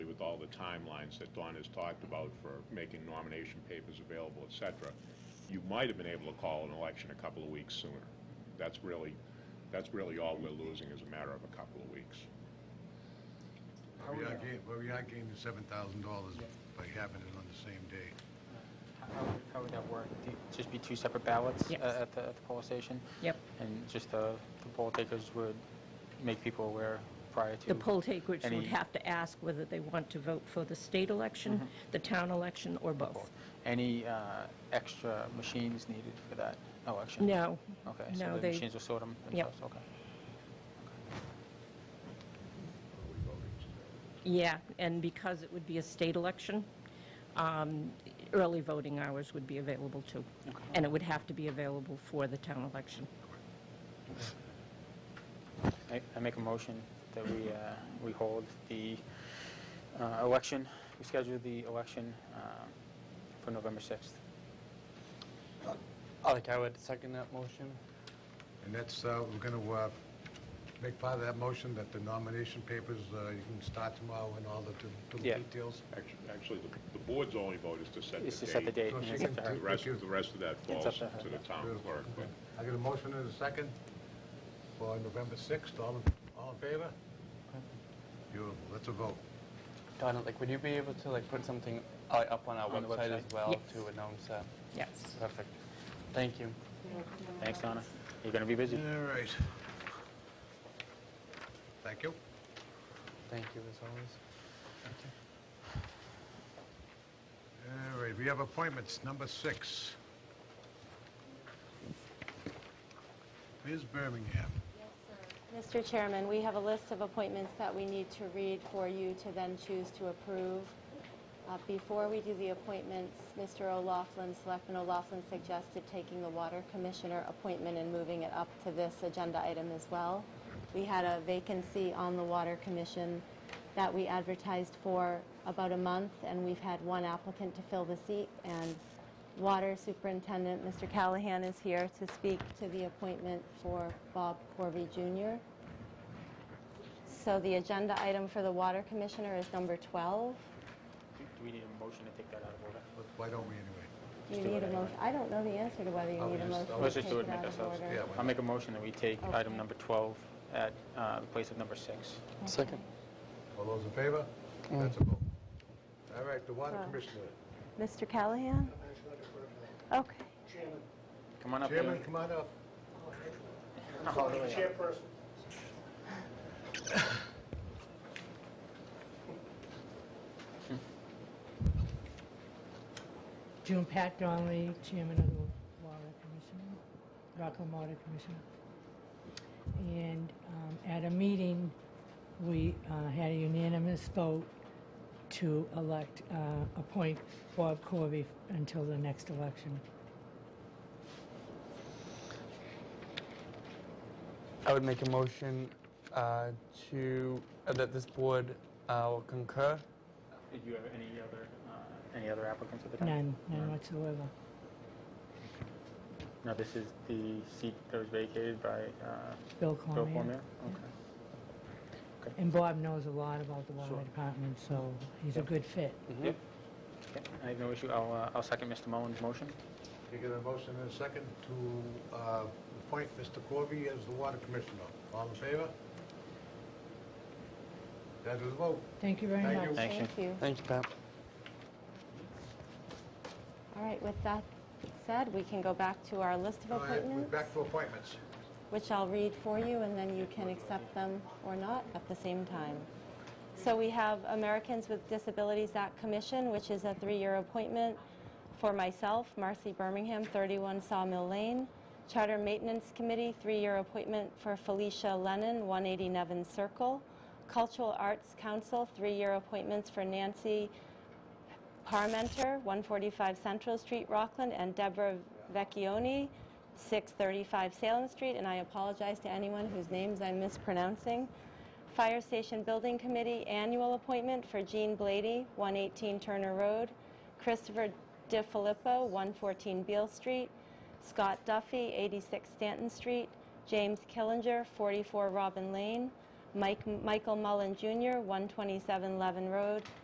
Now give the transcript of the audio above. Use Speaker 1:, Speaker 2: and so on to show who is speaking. Speaker 1: timelines that Don has talked about for making nomination papers available, et cetera, you might have been able to call an election a couple of weeks sooner. That's really, that's really all we're losing is a matter of a couple of weeks.
Speaker 2: But we are gain- but we are gaining seven thousand dollars by having it on the same day.
Speaker 3: How would- How would that work? Do you- Just be two separate ballots
Speaker 4: Yes.
Speaker 3: uh, at the, at the poll station?
Speaker 4: Yep.
Speaker 3: And just the, the poll takers would make people aware prior to?
Speaker 4: The poll takers would
Speaker 3: any- Mm-hmm.
Speaker 4: have to ask whether they want to vote for the state election, the town election, or both.
Speaker 3: Any uh, extra machines needed for that election?
Speaker 4: No.
Speaker 3: Okay,
Speaker 4: No,
Speaker 3: so the
Speaker 4: they-
Speaker 3: machines will sort them
Speaker 4: Yep.
Speaker 3: themselves, okay.
Speaker 4: Yeah, and because it would be a state election, um, early voting hours would be available too. And it would have to be available for the town election.
Speaker 3: I- I make a motion that we, uh, we hold the uh, election, we schedule the election um, for November 6th.
Speaker 5: Alec, I would second that motion.
Speaker 2: And that's, uh, we're gonna, uh, make part of that motion that the nomination papers, uh, you can start tomorrow and all the, to, to
Speaker 3: Yeah.
Speaker 2: details.
Speaker 1: Actually, actually, the- the board's only vote is to set the date.
Speaker 3: It's to set the date,
Speaker 2: So
Speaker 3: and
Speaker 2: she
Speaker 3: it's up to
Speaker 2: can
Speaker 3: her.
Speaker 1: The rest, the rest of that
Speaker 3: up
Speaker 1: falls
Speaker 3: to her.
Speaker 1: to the town clerk, but
Speaker 2: I got a motion and a second for November sixth. All, in- all in favor? Beautiful. That's a vote.
Speaker 5: Donna, like, would you be able to, like, put something uh, up on our
Speaker 3: On the
Speaker 5: website as
Speaker 3: website?
Speaker 5: well
Speaker 4: Yes.
Speaker 5: to announce that?
Speaker 4: Yes.
Speaker 5: Perfect. Thank you.
Speaker 3: Thanks, Donna. You're going to be busy.
Speaker 2: All right. Thank you.
Speaker 5: Thank you, as always.
Speaker 2: All right, we have appointments, number six. Ms. Birmingham.
Speaker 6: Mr. Chairman, we have a list of appointments that we need to read for you to then choose to approve. Uh, Before we do the appointments, Mr. O'Laughlin, Selectman O'Laughlin suggested taking the Water Commissioner appointment and moving it up to this agenda item as well. We had a vacancy on the Water Commission that we advertised for about a month, and we've had one applicant to fill the seat, and Water Superintendent, Mr. Callahan, is here to speak to the appointment for Bob Corby Jr. So the agenda item for the Water Commissioner is number 12.
Speaker 3: Do do we need a motion to take that out of order?
Speaker 2: But Why don't we anyway?
Speaker 6: You
Speaker 3: do it
Speaker 6: need a
Speaker 3: anyway.
Speaker 6: motion, I don't know the answer to whether you
Speaker 2: Oh,
Speaker 6: need a
Speaker 2: just-
Speaker 6: motion.
Speaker 2: I'll
Speaker 6: to
Speaker 3: Let's just
Speaker 6: take
Speaker 3: do it and
Speaker 6: out
Speaker 3: make
Speaker 6: of
Speaker 3: ourselves.
Speaker 6: order.
Speaker 2: Yeah, why
Speaker 3: I'll make a motion that we take item
Speaker 6: Okay.
Speaker 3: number 12 at uh, the place of number six.
Speaker 5: Second.
Speaker 2: All those in favor? That's a vote. All right, the water commissioner.
Speaker 6: Mr. Callahan? Okay.
Speaker 3: Come on up here.
Speaker 2: Chairman, come on up.
Speaker 7: June Pat Donnelly, Chairman of the Water Commission, Rockland Water Commission. And um, at a meeting, we uh, had a unanimous vote to elect, uh, appoint Bob Corby until the next election.
Speaker 5: I would make a motion uh, to, uh, that this board uh, will concur.
Speaker 3: Did you have any other, uh, any other applicants at the time?
Speaker 7: None, none whatsoever.
Speaker 3: No, this is the seat that was vacated by uh,
Speaker 7: Bill
Speaker 3: Bill
Speaker 7: Cormier.
Speaker 3: Cormier? Okay.
Speaker 7: And Bob knows a lot about the water
Speaker 3: Sure.
Speaker 7: department, so he's a good fit.
Speaker 3: Yep. Okay, I have no issue. I'll, uh, I'll second Mr. Mullins' motion.
Speaker 2: You get a motion and a second to uh, appoint Mr. Corby as the water commissioner. All in favor? That is a vote.
Speaker 7: Thank you very
Speaker 2: Thank
Speaker 7: much.
Speaker 2: you.
Speaker 3: Thank you.
Speaker 6: you.
Speaker 5: Thank you, Pat.
Speaker 6: All right, with that said, we can go back to our list of
Speaker 2: All right, we're
Speaker 6: appointments,
Speaker 2: back to appointments.
Speaker 6: which I'll read for you, and then you can accept them or not at the same time. So we have Americans with Disabilities Act Commission, which is a three-year appointment for myself, Marcy Birmingham, 31 Sawmill Lane. Charter Maintenance Committee, three-year appointment for Felicia Lennon, 180 Nevin Circle. Cultural Arts Council, three-year appointments for Nancy Parmenter, 145 Central Street, Rockland, and Deborah Vecchione, 635 Salem Street, and I apologize to anyone whose names I'm mispronouncing. Fire Station Building Committee, annual appointment for Jean Blady, 118 Turner Road, Christopher DiFilippo, 114 Beale Street, Scott Duffy, 86 Stanton Street, James Killinger, 44 Robin Lane, Mike, Michael Mullen Jr., 127 Levin Road,